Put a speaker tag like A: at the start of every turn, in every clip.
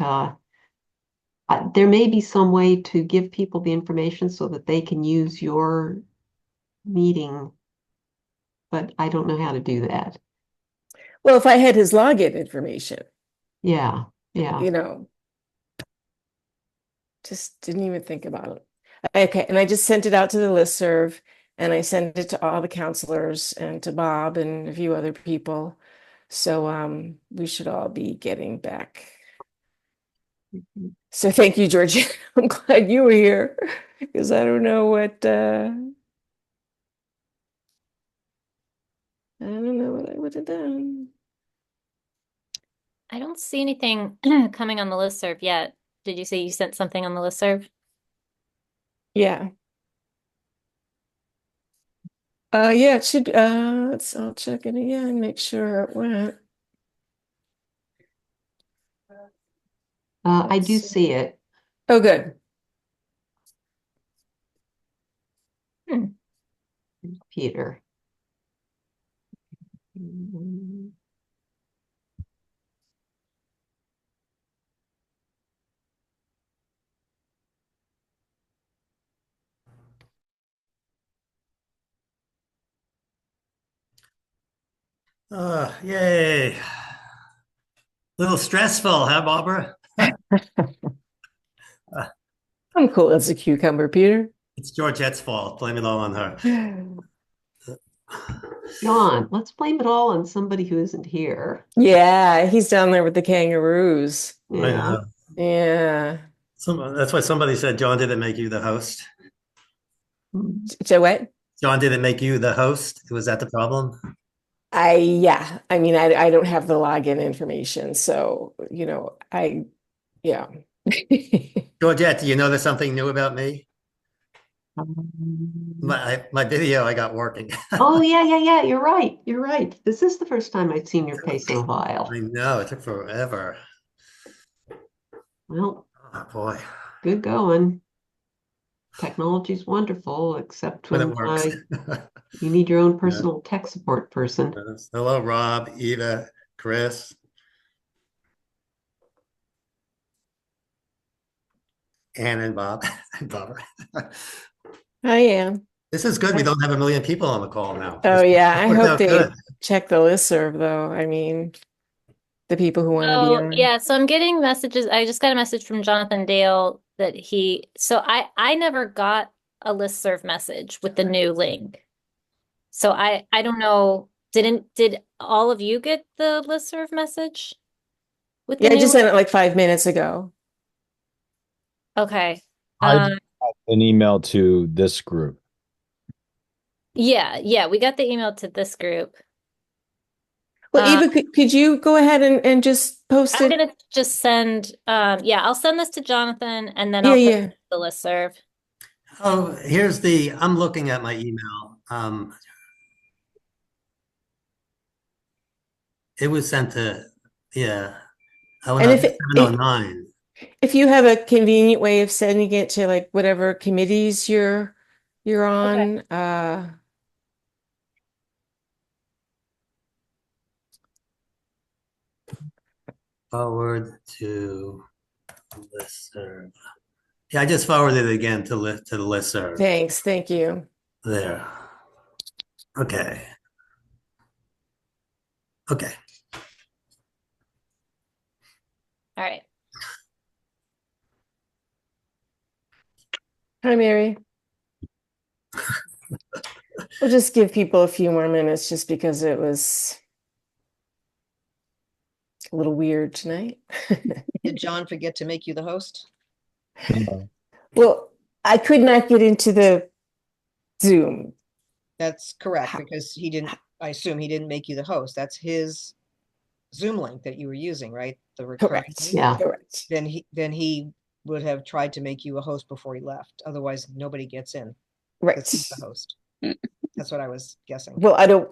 A: uh, uh, there may be some way to give people the information so that they can use your meeting. But I don't know how to do that.
B: Well, if I had his login information,
A: Yeah, yeah,
B: you know. Just didn't even think about it. Okay, and I just sent it out to the listserv and I sent it to all the counselors and to Bob and a few other people. So um we should all be getting back.
A: Uh,
B: So thank you, Georgia. I'm glad you were here because I don't know what uh I don't know what I would have done.
C: I don't see anything coming on the listserv yet. Did you say you sent something on the listserv?
B: Yeah. Uh, yeah, it should, uh, let's, I'll check it again, make sure it went.
A: uh, I do
B: let's see.
A: see it.
B: Oh, good.
A: Peter.
D: Uh, yay. Little stressful, huh, Barbara?
B: I'm cool as a cucumber, Peter.
D: It's Georgette's fault. Blame it all on her.
A: John, let's blame it all on somebody who isn't here.
B: Yeah, he's down there with the kangaroos.
D: I
A: Yeah,
D: know.
B: Yeah.
D: Some, that's why somebody said John didn't make you the host.
B: So what?
D: John didn't make you the host. Was that the problem?
B: I, yeah, I mean, I, I don't have the login information, so, you know, I, yeah.
D: Georgette, do you know there's something new about me? My I, my video I got working.
A: Oh, yeah, yeah, yeah, you're right, you're right. This is the first time I've seen your face in a while.
D: I know it took forever.
A: Well,
D: Oh, boy,
A: good going. Technology's wonderful, except
D: when it
A: when
D: works.
A: uh, you need your own personal tech support person.
D: Hello, Rob, Eva, Chris. Ann and Bob and Barbara.
B: I am.
D: This is good. We don't have a million people on the call now.
B: Oh,
D: This-
B: yeah, I
D: worked
B: hope
D: out
B: they
D: good.
B: check the listserv though. I mean, the people who want to be
C: Oh,
B: on.
C: yeah. So I'm getting messages. I just got a message from Jonathan Dale that he, so I, I never got a listserv message with the new link. So I, I don't know, didn't, did all of you get the listserv message? With the
B: Yeah, I
C: new
B: just
C: link?
B: sent it like five minutes ago.
C: Okay.
E: I
C: Um,
E: got an email to this group.
C: yeah, yeah, we got the email to this group.
B: Well,
C: Uh,
B: Eva, could, could you go ahead and, and just post
C: I'm
B: it?
C: gonna just send, um, yeah, I'll send this to Jonathan and then
B: Yeah,
C: I'll put
B: yeah.
C: it to the listserv.
D: Oh, here's the, I'm looking at my email. Um, it was sent to, yeah. Oh,
B: And
D: no,
B: if it-
D: 709.
B: If you have a convenient way of sending it to like whatever committees you're you're on,
C: Okay.
B: uh,
D: Forward to listserv. Yeah, I just forwarded it again to li, to the listserv
B: thanks, thank you.
D: there. Okay. Okay,
C: All right.
B: Hi, Mary. We'll just give people a few more minutes just because it was a little weird tonight.
F: Did John forget to make you the host?
B: Well, I could not get into the Zoom.
F: That's correct,
B: Ha-
F: because he didn't, I assume he didn't make you the host. That's his Zoom link that you were using, right? The recurring.
B: Correct.
F: link?
A: Yeah.
B: Correct.
F: Then he, then he would have tried to make you a host before he left. Otherwise, nobody gets in.
B: Right.
F: 'cause he's the host. That's what I was guessing.
B: Well, I don't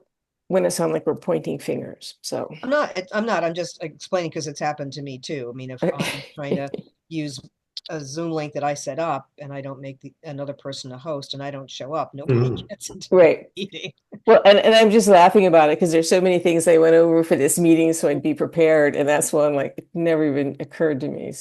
B: want to sound like we're pointing fingers. So,
F: I'm not, it- I'm not, I'm just explaining because it's happened to me too. I mean, if Oh, I'm trying to use a Zoom link that I set up and I don't make the, another person a host and I don't show up, nobody
D: Mhm.
F: gets into the
B: right.
F: meeting.
B: Well, and, and I'm just laughing about it because there's so many things I went over for this meeting. So I'd be prepared. And that's one like it never even occurred to me.